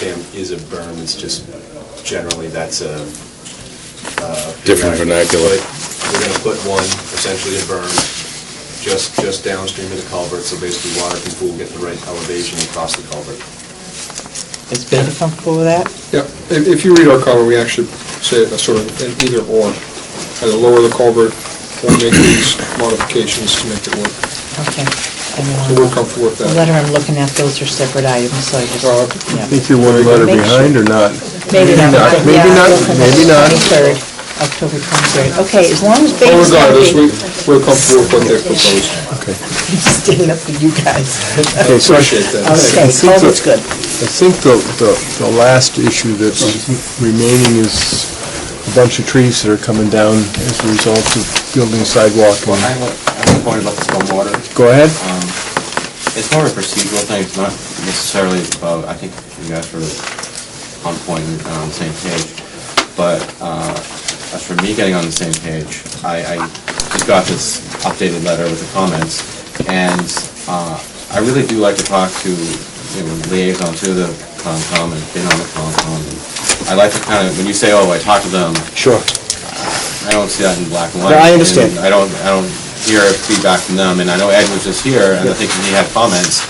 dam is a berm, it's just generally that's a... uh, Different you're not gonna vernacular. put- You're gonna put one, essentially a berm, just, just downstream of the culvert, so basically water can pool, get the right elevation across the culvert. Is Ben comfortable with that? Yeah, if, if you read our cover, we actually say a sort of an either or, either lower the culvert or make these modifications to make it work. Okay. So we're comfortable with The that. letter I'm looking at, those are separate items, so I just, Well, yeah. Think you're one letter Make sure. behind or not? Maybe not, but Maybe yeah, not, I'm looking at maybe not. 23rd, October 23rd. Okay, as long as But Ben's regardless, we, happy. we're comfortable with what they've proposed. I'm Standing up for you guys. Okay, so I Appreciate that. Okay, I think Culvert's the- good. think the, the, the last issue that's remaining is a bunch of trees that are coming down as a result of building sidewalk. Well, I Um, have a- I have a point about the stormwater. Go ahead. It's more of a procedural thing, it's not necessarily about, I think you guys were on point and on the same page. But uh, as for me getting on the same page, I, I just got this updated letter with the comments. And uh, I really do like to talk to, you know, liaison to the Concom and been on the Concom. and I like to kind of, when you say, oh, I talked to them, Sure. I don't see that in black and No, white. I understand. And I don't, I don't hear feedback from them, and I know Ed was just here, and I think he had comments,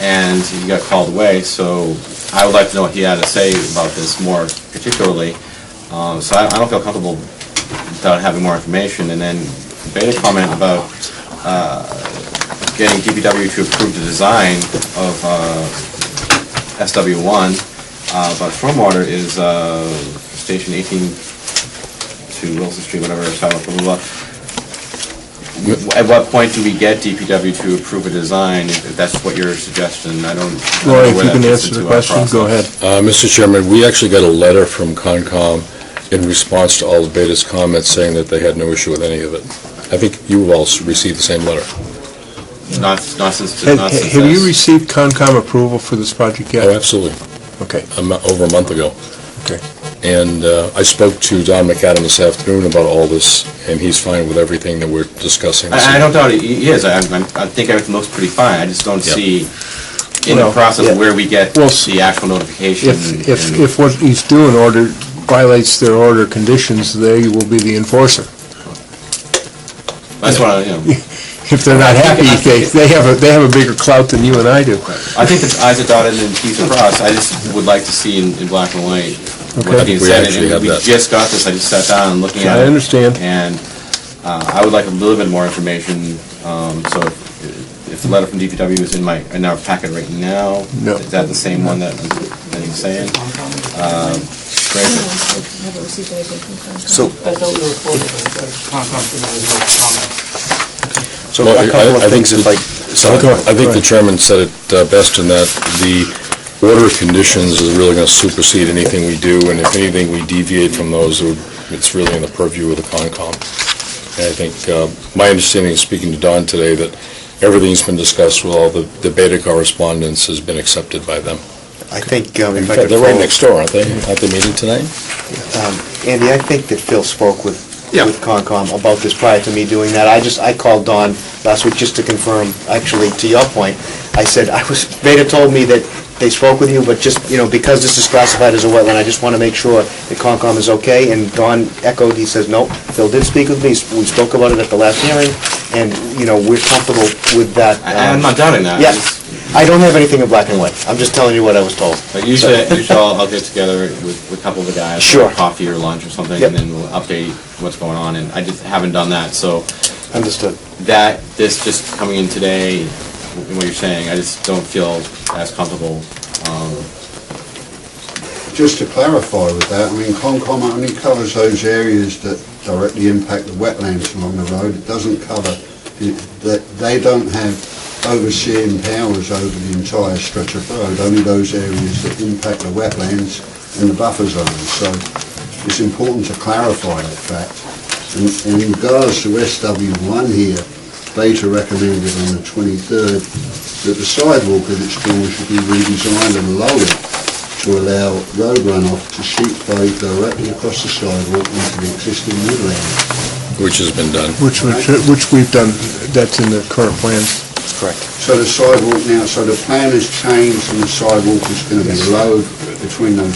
and he got called away, so I would like to know what he had to say about this more particularly. Um, So I I don't feel comfortable without having more information, and then made a comment about uh, getting DPW to approve the design of uh, SW1, uh, but stormwater is uh, Station 18 to Wilson Street, whatever, sidewalk, blah, blah, blah. At what point do we get DPW to approve a design, if that's what your suggestion, I don't. I don't know Roy, if where you that can fits answer into the our question, go process. ahead. Uh, Mr. Chairman, we actually got a letter from Concom in response to all of Beta's comments saying that they had no issue with any of it. I think you all s- received the same letter. Not, not since, Have not since have you this. received Concom approval for this project yet? Oh, absolutely, Okay, a mo- over a month ago. okay. And uh, I spoke to Don McAdam this afternoon about all this, and he's fine with everything that we're discussing. this I, I evening. don't doubt it he is, I, I'm- I think everything looks pretty fine, I just don't Yep. see in Well, the process yeah. where we get Well, s- the actual notification. If, if, and- if what he's doing order violates their order conditions, they will be the enforcer. That's what I, you know, If they're not happy, they, they have a, they have a bigger clout than you and I do. I think it's eyes are dotted and T's are crossed, I just would like to see in, in black and white Okay. what's being We said. actually And have We that. just got this, I just sat down and looking at I it. understand. And uh, I would like a little bit more information, um, so if if the letter from DPW is in my, in our packet right now, No. is that the same one that, that he's saying? Um, Great, haven't received anything from Concom. So- That's what we reported, but Concom didn't have any comments. So Well, I- I think the- so Go ahead, I go think the ahead. chairman said it uh, best in that the order of conditions is really going to supersede anything we do, and if anything we deviate from those, it would- it's really in the purview of the Concom. And I think, uh, my understanding, is speaking to Don today, that everything's been discussed with all the the Beta correspondence has been accepted by them. I think, um, if I could They're right follow- next door, aren't they, at the meeting tonight? Andy, I think that Phil spoke with, Yeah. with Concom about this prior to me doing that. I just, I called Don last week just to confirm, actually, to your point. I said, I was, Beta told me that they spoke with you, but just, you know, because this is classified as a wetland, I just want to make sure that Concom is okay. And Don echoed, he says, no, Phil did speak with me, we spoke about it at the last hearing, and, you know, we're comfortable with that. I- I'm um, not doubting that. I Yeah, just- I don't have anything in black and white. I'm just telling you what I was told. But usually, usually I'll I'll get together with with a couple of the guys. Sure. for Coffee or lunch or something, Yep. and then we'll update what's going on, and I just haven't done that, so Understood. that, this just coming in today, and what you're saying, I just don't feel as comfortable. um, Just to clarify with that, I mean, Concom only covers those areas that directly impact the wetlands along the road. It doesn't cover, it- that they don't have overseeing powers over the entire stretch of road, only those areas that impact the wetlands and the buffer zones. So it's important to clarify that fact. And and in regards to SW1 here, Beta recommended on the 23rd that the sidewalk at its corner should be redesigned and lowered to allow road runoff to sheet flow directly across the sidewalk into the existing woodland. Which has been done. Which, which, which we've done, that's in the current plans. Correct. So the sidewalk now, so the plan has changed and the sidewalk is going to be low between those